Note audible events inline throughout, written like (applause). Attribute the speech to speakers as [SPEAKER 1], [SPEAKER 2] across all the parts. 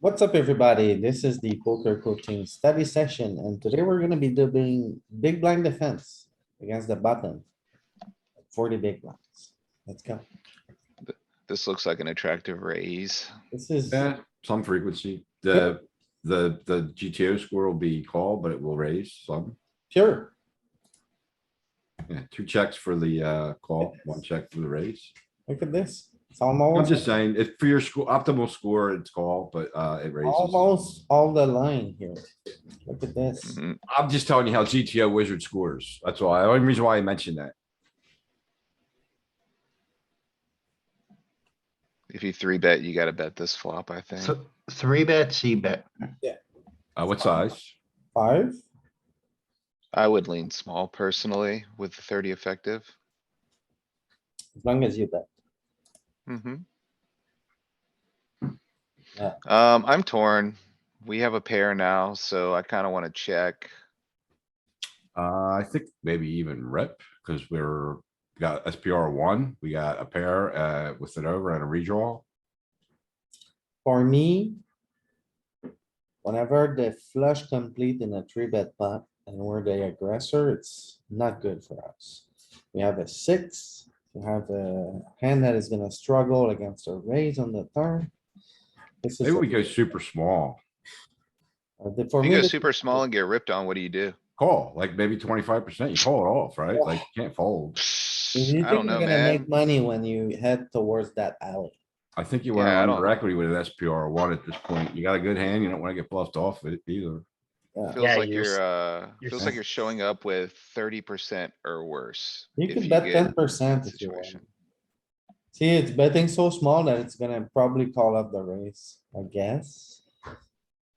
[SPEAKER 1] What's up, everybody? This is the poker coaching study session, and today we're gonna be doing big blind defense against the button. Forty big blinds. Let's go.
[SPEAKER 2] This looks like an attractive raise.
[SPEAKER 1] This is,
[SPEAKER 3] Yeah, some frequency. The, the, the GTO score will be called, but it will raise some.
[SPEAKER 1] pure.
[SPEAKER 3] Yeah, two checks for the, uh, call, one check for the raise.
[SPEAKER 1] Look at this. It's
[SPEAKER 3] I'm
[SPEAKER 1] almost,
[SPEAKER 3] just saying, if for your score, optimal score, it's call, but, uh, it raises.
[SPEAKER 1] almost all the line here. Look at this.
[SPEAKER 2] Mhm.
[SPEAKER 3] I'm just telling you how GTO wizard scores. That's why, the only reason why I mentioned that.
[SPEAKER 2] If you three bet, you gotta bet this flop, I think.
[SPEAKER 4] So three bet, C bet.
[SPEAKER 3] Uh, what size?
[SPEAKER 1] Five,
[SPEAKER 2] I would lean small personally with the thirty effective.
[SPEAKER 1] as long as you bet.
[SPEAKER 2] Mm-hmm.
[SPEAKER 1] Yeah.
[SPEAKER 2] Um, I'm torn. We have a pair now, so I kinda wanna check.
[SPEAKER 3] Uh, I think maybe even rip, cuz we're, got SPR one, we got a pair, uh, with an over and a redraw.
[SPEAKER 1] For me. Whenever the flush complete in a three bet pot and we're the aggressor, it's not good for us. We have a six, we have a hand that is gonna struggle against a raise on the turn. This is,
[SPEAKER 3] Maybe we
[SPEAKER 1] a-
[SPEAKER 3] go super small.
[SPEAKER 1] uh, the- for
[SPEAKER 2] You
[SPEAKER 1] me,
[SPEAKER 2] go
[SPEAKER 1] this-
[SPEAKER 2] super small
[SPEAKER 1] (laughs)
[SPEAKER 2] and get ripped on, what do you do?
[SPEAKER 3] call, like maybe twenty-five percent, you call it off, right? Like, you can't fold.
[SPEAKER 1] you think
[SPEAKER 2] I don't know,
[SPEAKER 1] you're gonna make
[SPEAKER 2] man.
[SPEAKER 1] Money when you head towards that alley.
[SPEAKER 3] I think you wanna
[SPEAKER 2] Yeah, I
[SPEAKER 3] run
[SPEAKER 2] don't-
[SPEAKER 3] your equity with an SPR one at this point. You got a good hand, you don't wanna get bluffed off it either.
[SPEAKER 1] Yeah,
[SPEAKER 2] Feels
[SPEAKER 4] Yeah,
[SPEAKER 2] like
[SPEAKER 4] you're s-
[SPEAKER 2] you're, uh,
[SPEAKER 4] you're
[SPEAKER 2] feels like
[SPEAKER 4] s-
[SPEAKER 2] you're showing up with thirty percent or worse.
[SPEAKER 1] You
[SPEAKER 2] if
[SPEAKER 1] can bet
[SPEAKER 2] get
[SPEAKER 1] ten
[SPEAKER 2] that
[SPEAKER 1] percent if you want.
[SPEAKER 2] Situation.
[SPEAKER 1] See, it's betting so small that it's gonna probably call up the raise, I guess.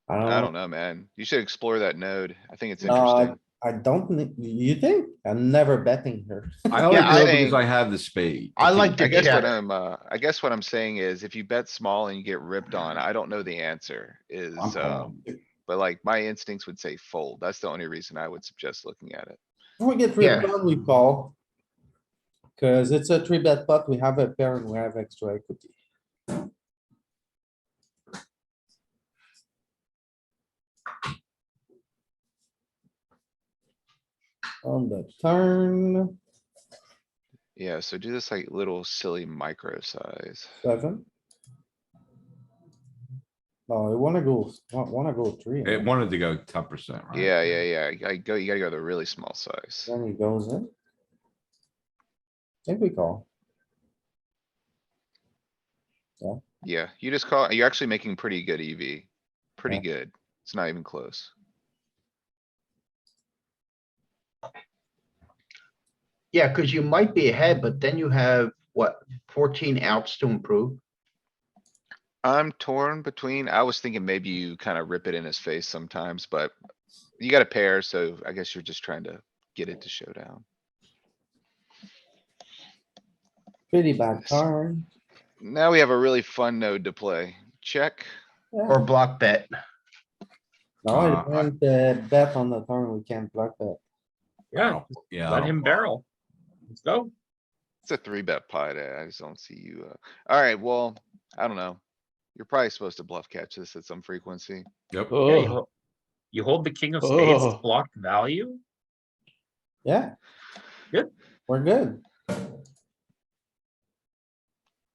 [SPEAKER 2] I don't know, man. You should explore that node. I think it's
[SPEAKER 1] No, I-
[SPEAKER 2] interesting.
[SPEAKER 1] I don't, think- you think? I'm never betting here. (laughs)
[SPEAKER 3] I only
[SPEAKER 2] Yeah, I
[SPEAKER 3] do it because
[SPEAKER 2] think-
[SPEAKER 3] I have the spade.
[SPEAKER 4] I
[SPEAKER 3] think
[SPEAKER 4] like
[SPEAKER 2] I
[SPEAKER 4] to
[SPEAKER 2] guess what
[SPEAKER 4] check.
[SPEAKER 2] I'm, uh, I guess what I'm saying is if you bet small and you get ripped on, I don't know the answer is,
[SPEAKER 3] I'm
[SPEAKER 2] um,
[SPEAKER 3] calling.
[SPEAKER 2] but like my instincts would say fold. That's the only reason I would suggest looking at it.
[SPEAKER 1] If we get
[SPEAKER 4] Yeah.
[SPEAKER 1] ripped on, we call. Cause it's a three bet pot, we have a pair and we have extra equity. On the turn,
[SPEAKER 2] Yeah, so do this like little silly micro size.
[SPEAKER 1] seven. Oh, I wanna go, wa- wanna go three.
[SPEAKER 3] It wanted to go ten percent, right?
[SPEAKER 2] Yeah, yeah, yeah. I go, you gotta go to the really small size.
[SPEAKER 1] Then he goes in. Think we call.
[SPEAKER 2] Yeah, you just call, you're actually making pretty good EV. Pretty good. It's not even close.
[SPEAKER 4] Yeah, because you might be ahead, but then you have, what, fourteen outs to improve?
[SPEAKER 2] I'm torn between, I was thinking maybe you kind of rip it in his face sometimes, but you got a pair, so I guess you're just trying to get it to showdown.
[SPEAKER 1] Pretty bad turn.
[SPEAKER 2] Now we have a really fun node to play. Check.
[SPEAKER 4] Or block bet.
[SPEAKER 1] No,
[SPEAKER 3] Uh,
[SPEAKER 1] I want the bet on the turn, we can't block that.
[SPEAKER 3] I don't- Yeah. I
[SPEAKER 5] Let
[SPEAKER 3] don't-
[SPEAKER 5] him barrel. Let's go.
[SPEAKER 2] It's a three bet pot. eh, I just don't see you. Uh, alright, well, I don't know. You're probably supposed to bluff catch this at some frequency.
[SPEAKER 3] Yep.
[SPEAKER 5] Yeah, you hol- You hold the king of spades, it's
[SPEAKER 6] Ugh.
[SPEAKER 5] blocked value.
[SPEAKER 1] Yeah.
[SPEAKER 5] Good.
[SPEAKER 1] We're good.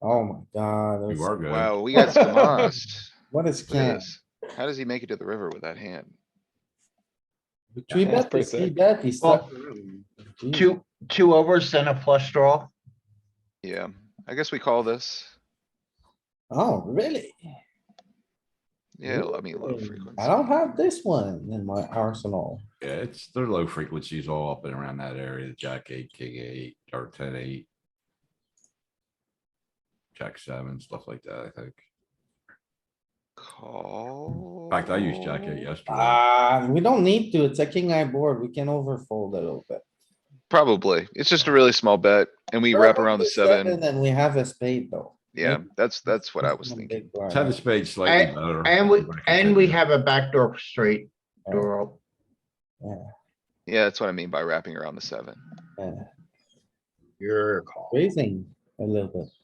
[SPEAKER 1] Oh my god,
[SPEAKER 3] You
[SPEAKER 1] it's-
[SPEAKER 3] are good.
[SPEAKER 2] Wow, we
[SPEAKER 1] (laughs)
[SPEAKER 2] got demolished.
[SPEAKER 1] what is
[SPEAKER 2] Look at
[SPEAKER 1] can?
[SPEAKER 2] this. How does he make it to the river with that hand?
[SPEAKER 1] Three
[SPEAKER 6] That's
[SPEAKER 1] bet,
[SPEAKER 6] pretty
[SPEAKER 1] three
[SPEAKER 6] sick.
[SPEAKER 1] bet, he's
[SPEAKER 4] Well,
[SPEAKER 1] stuck. Gee,
[SPEAKER 4] Two, two overs, then a flush draw.
[SPEAKER 2] Yeah, I guess we call this.
[SPEAKER 1] Oh, really?
[SPEAKER 2] Yeah, I mean, low
[SPEAKER 1] Ooh,
[SPEAKER 2] frequency.
[SPEAKER 1] I don't have this one in my arsenal.
[SPEAKER 3] Yeah, it's, they're low frequencies all up and around that area, jack eight, king eight, or ten eight. Jack seven, stuff like that, I think.
[SPEAKER 2] Call.
[SPEAKER 3] In fact, I used jack eight
[SPEAKER 2] Oh.
[SPEAKER 3] yesterday.
[SPEAKER 1] Uh, we don't need to, it's a king eye board, we can overfold a little bit.
[SPEAKER 2] Probably. It's just a really small bet and we wrap around the seven.
[SPEAKER 1] And we have a spade though.
[SPEAKER 2] Yeah, that's, that's what I was
[SPEAKER 1] Some
[SPEAKER 2] thinking.
[SPEAKER 1] big blind.
[SPEAKER 3] Ten of spades slightly
[SPEAKER 4] And-
[SPEAKER 3] better.
[SPEAKER 4] And we,
[SPEAKER 3] I'm gonna
[SPEAKER 4] and we
[SPEAKER 3] continue.
[SPEAKER 4] have a backdoor straight door. up.
[SPEAKER 2] Yeah, that's what I mean by wrapping around the seven.
[SPEAKER 1] Yeah,
[SPEAKER 5] Your call.
[SPEAKER 1] Raising a little bit.